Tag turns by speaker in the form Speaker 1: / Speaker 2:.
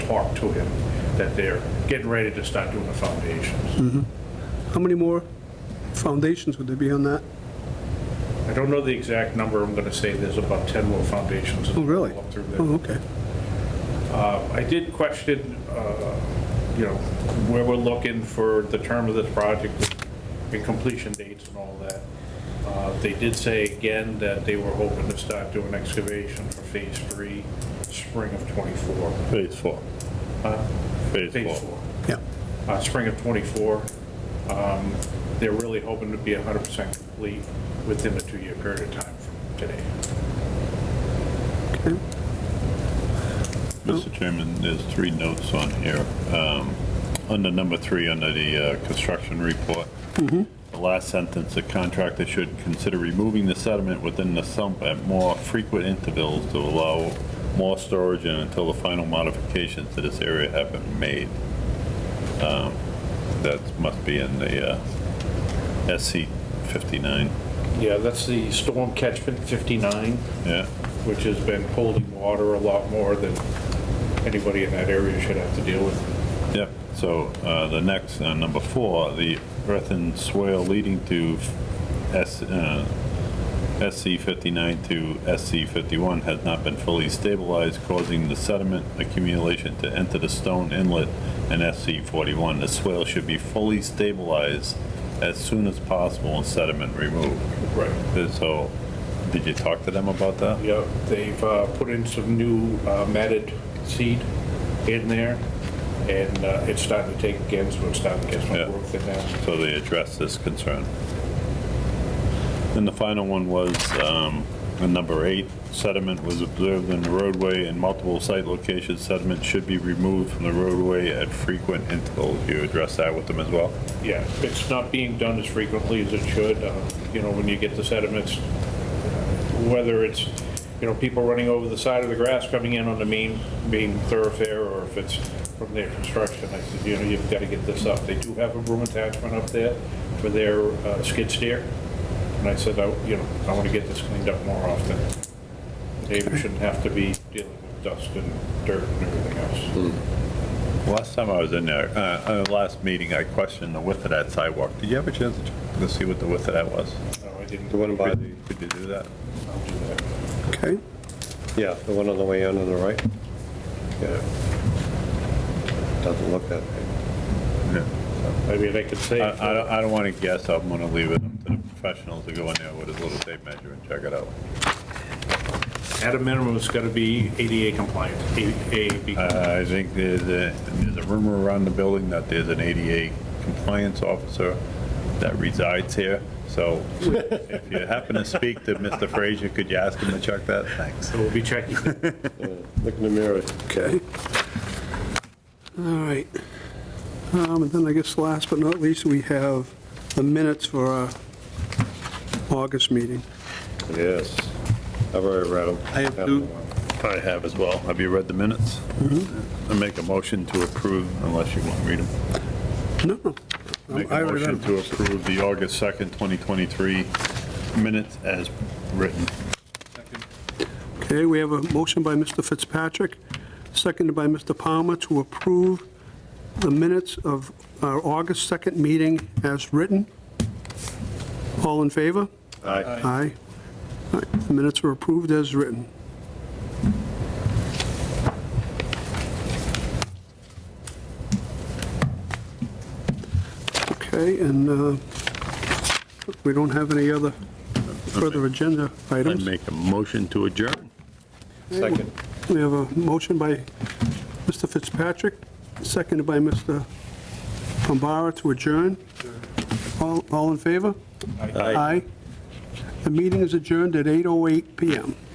Speaker 1: talked to him that they're getting ready to start doing the foundations.
Speaker 2: How many more foundations would there be on that?
Speaker 1: I don't know the exact number, I'm gonna say there's about 10 more foundations.
Speaker 2: Oh, really?
Speaker 1: up through there. Uh,
Speaker 2: Oh, okay.
Speaker 1: I did question, uh, you know, where we're looking for the term of this project and completion dates and all that. Uh, They did say again that they were hoping to start doing excavation for phase three, spring of '24.
Speaker 3: Phase four.
Speaker 1: Phase four,
Speaker 2: Yeah.
Speaker 1: uh, spring of '24. They're really hoping to be 100% complete within a two-year period of time from today.
Speaker 2: Okay.
Speaker 3: Mr. Chairman, there's three notes on here. Um, Under number three, under the uh, construction report, the last sentence, the contractor should consider removing the sediment within the sump at more frequent intervals to allow more storage and until the final modifications to this area have been made. Um, That must be in the uh, SC 59,
Speaker 1: Yeah, that's the storm catchment 59.
Speaker 3: yeah?
Speaker 1: which has been holding water a lot more than anybody in that area should have to deal with.
Speaker 3: Yep, so uh, the next, uh, number four, the earthen swale leading to S- uh, SC 59 to SC 51 has not been fully stabilized, causing the sediment accumulation to enter the stone inlet in SC 41. The swale should be fully stabilized as soon as possible and sediment removed.
Speaker 1: Right.
Speaker 3: So, did you talk to them about that?
Speaker 1: Yeah, they've uh, put in some new uh, matted seed in there, and uh, it's starting to take again, so it's starting to get
Speaker 3: Yeah.
Speaker 1: some growth in there.
Speaker 3: So they addressed this concern. And the final one was, um, on number eight, sediment was observed in the roadway in multiple site locations. Sediment should be removed from the roadway at frequent intervals. You address that with them as well?
Speaker 1: Yeah, it's not being done as frequently as it should, uh, you know, when you get the sediments, whether it's, you know, people running over the side of the grass coming in on the main, main thoroughfare, or if it's from their construction, I said, you know, you've got to get this up. They do have a broom attachment up there for their uh, skid steer, and I said, I, you know, I want to get this cleaned up more often. They shouldn't have to be dealing with dust and dirt and everything
Speaker 4: Hmm.
Speaker 1: else.
Speaker 3: Last time I was in there, uh, uh, last meeting, I questioned the width of that sidewalk. Did you have a chance to check to see what the width of that was?
Speaker 1: No, I didn't.
Speaker 4: The one by the,
Speaker 3: Could you do that?
Speaker 1: I'll do that.
Speaker 2: Okay.
Speaker 4: yeah, the one on the way in on the right. Yeah. Doesn't look that big.
Speaker 3: Yeah.
Speaker 1: I mean, I could say.
Speaker 3: I, I don't, I don't want to guess. I'm going to leave it up to the professionals to go in there with a little tape measure and check it out.
Speaker 1: At a minimum, it's got to be ADA compliant, ADA be-
Speaker 3: Uh, I think there's a, there's a rumor around the building that there's an ADA compliance officer that resides here. So if you happen to speak to Mr. Frazier, could you ask him to check that? Thanks.
Speaker 1: so we'll be checking.
Speaker 4: Yeah, Look in the mirror.
Speaker 2: Okay. All right. Um, And then I guess last but not least, we have the minutes for our August meeting.
Speaker 4: Yes. I've already read them.
Speaker 2: I have two.
Speaker 3: I have as well. Have you read the minutes? I make a motion to approve, unless you want to read them.
Speaker 2: No, no.
Speaker 3: Make
Speaker 2: I
Speaker 3: a
Speaker 2: already read
Speaker 3: motion to approve the August 2nd, 2023 minutes as written.
Speaker 2: Okay, we have a motion by Mr. Fitzpatrick, seconded by Mr. Palmer to approve the minutes of our August 2nd meeting as written. All in favor?
Speaker 4: Aye.
Speaker 2: Aye. All right, The Minutes are approved as written. Okay, and uh, we don't have any other further agenda
Speaker 3: I
Speaker 2: items.
Speaker 3: make a motion to adjourn.
Speaker 4: Second.
Speaker 2: We have a motion by Mr. Fitzpatrick, seconded by Mr. Bombara to adjourn. All oh all in favor? Aye. The meeting is adjourned at 8:08 PM.